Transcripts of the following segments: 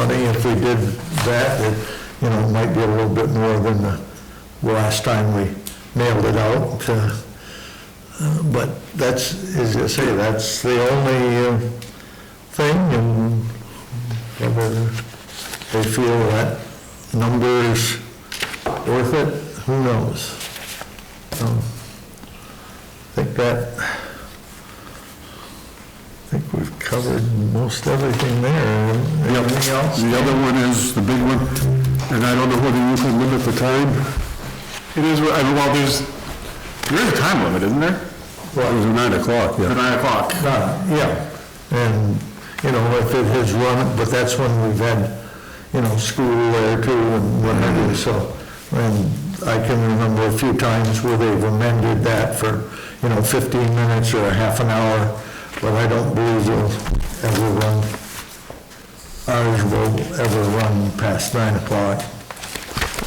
if we did that, it, you know, might be a little bit more than the last time we mailed it out. uh, uh, But that's, as I say, that's the only uh, thing, and whether they feel that number is worth it, who knows? Um, I think that, I think we've covered most everything there. Anything else? The other one is the big one, and I don't know whether you can limit the time. It is, I mean, well, there's, there is a time limit, isn't there? Well, it was nine o'clock, yeah. Nine o'clock. Uh, Yeah, and, you know, if it has run, but that's when we've had, you know, school there too and what have you, so. And I can remember a few times where they've amended that for, you know, 15 minutes or a half an hour, but I don't believe it'll ever run, ours will ever run past 9 o'clock.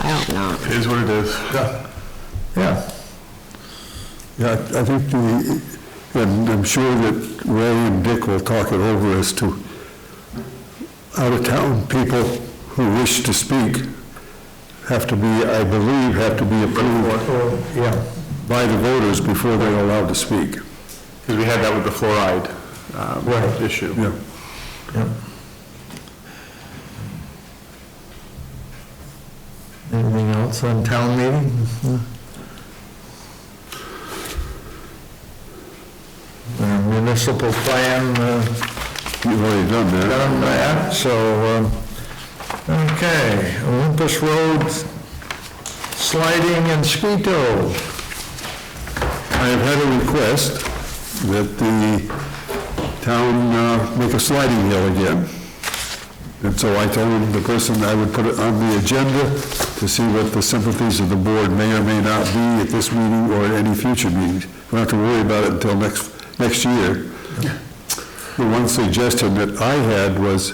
I hope not. It is what it is. Yeah, Yeah, I think the, and I'm sure that Ray and Dick will talk it over as to out-of-town people who wish to speak have to be, I believe, have to be approved or, yeah. by the voters before they're allowed to speak. Because we had that with the fluoride um, Right. issue. Yeah. Yep. Anything else on town meeting? Uh, Municipal plan, uh, You've already done that. done that, so, um, okay, Olympus Road sliding and Skeeto. I have had a request that the town uh, make a sliding hill again. And so I told the person I would put it on the agenda to see what the sympathies of the board may or may not be at this meeting or at any future meetings. We don't have to worry about it until next, next year. The one suggestion that I had was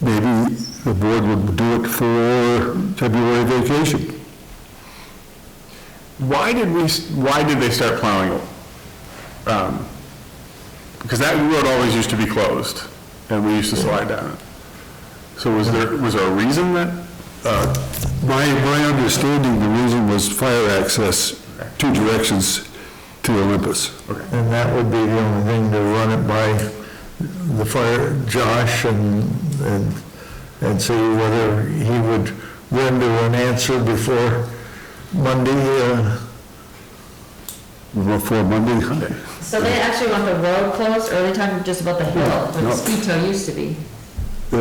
maybe the board would do it for February vacation. Why did we, s- why did they start plowing? um, Because that road always used to be closed, and we used to slide down it. So was there, was there a reason that? uh, My, my understanding, the reason was fire access, two directions to Olympus. And that would be the only thing to run it by the fire, Josh, and, and, and see whether he would render an answer before Monday, uh, Before Monday, So they actually want the road closed, or are they talking just about the hill, where No. the ski tow used to be? or,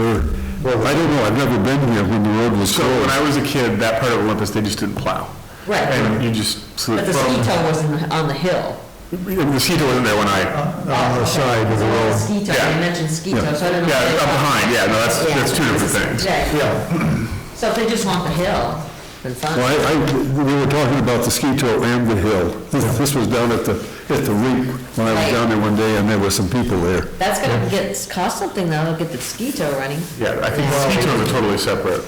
I don't know, I've never been here when the road was So when closed. I was a kid, that part of Olympus, they just didn't plow. Right, And you just, so but the ski from, tow was in the- on the hill. the seat wasn't there when I, on the side of the So road. Ski tow, Yeah. they mentioned ski tow, so I don't know. yeah, if they- up behind, yeah, no, that's, Yeah. that's two different things. Right. Yeah, So if they just want the hill, then fine. Well, I, I, we were talking about the ski tow and the hill. This this was down at the, at the rink, when I was Right. down there one day, and there were some people there. That's gonna get, cost something though, to get the ski tow running. Yeah, I think the ski tow is a totally separate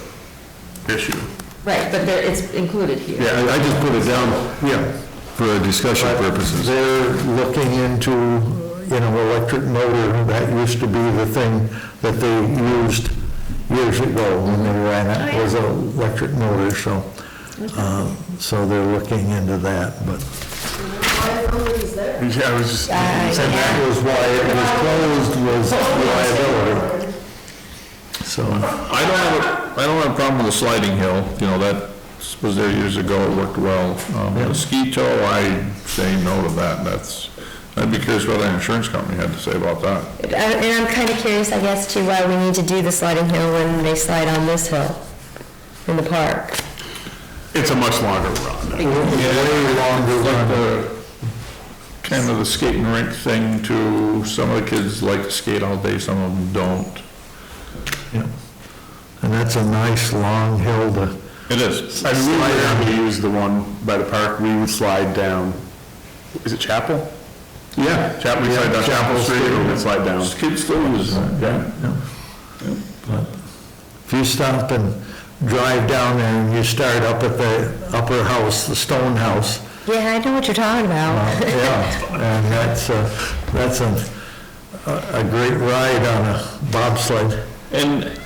issue. Right, but there, it's included here. I, I just put it down, yeah, for discussion purposes. they're looking into, you know, electric motor, that used to be the thing that they used years ago when they ran it, was an electric motor, so, uh, so they're looking into that, but. Yeah, I was just, I- And that was why it was closed, was liability. So, I don't have, a I don't have a problem with the sliding hill, you know, that was there years ago, it worked well. Um, The ski tow, I say no to that, that's, I'd be curious what the insurance company had to say about that. Uh, And I'm kind of curious, I guess, to why we need to do the sliding hill when they slide on this hill in the park. it's a much longer run. Way longer than the, kind of the skating rink thing to, some of the kids like to skate all day, some of them don't. yeah. And that's a nice long hill to, It is. I mean, we were able to use the one by the park, we would slide down, is it Chapel? Yeah. Chapel, we slide down Chapel Street, and we'd slide down. Kids still use that, yeah. if you stop and drive down there and you start up at the upper house, the stone house, Yeah, I know what you're talking about. yeah, and that's, a- that's a, a a great ride on a bobsled. And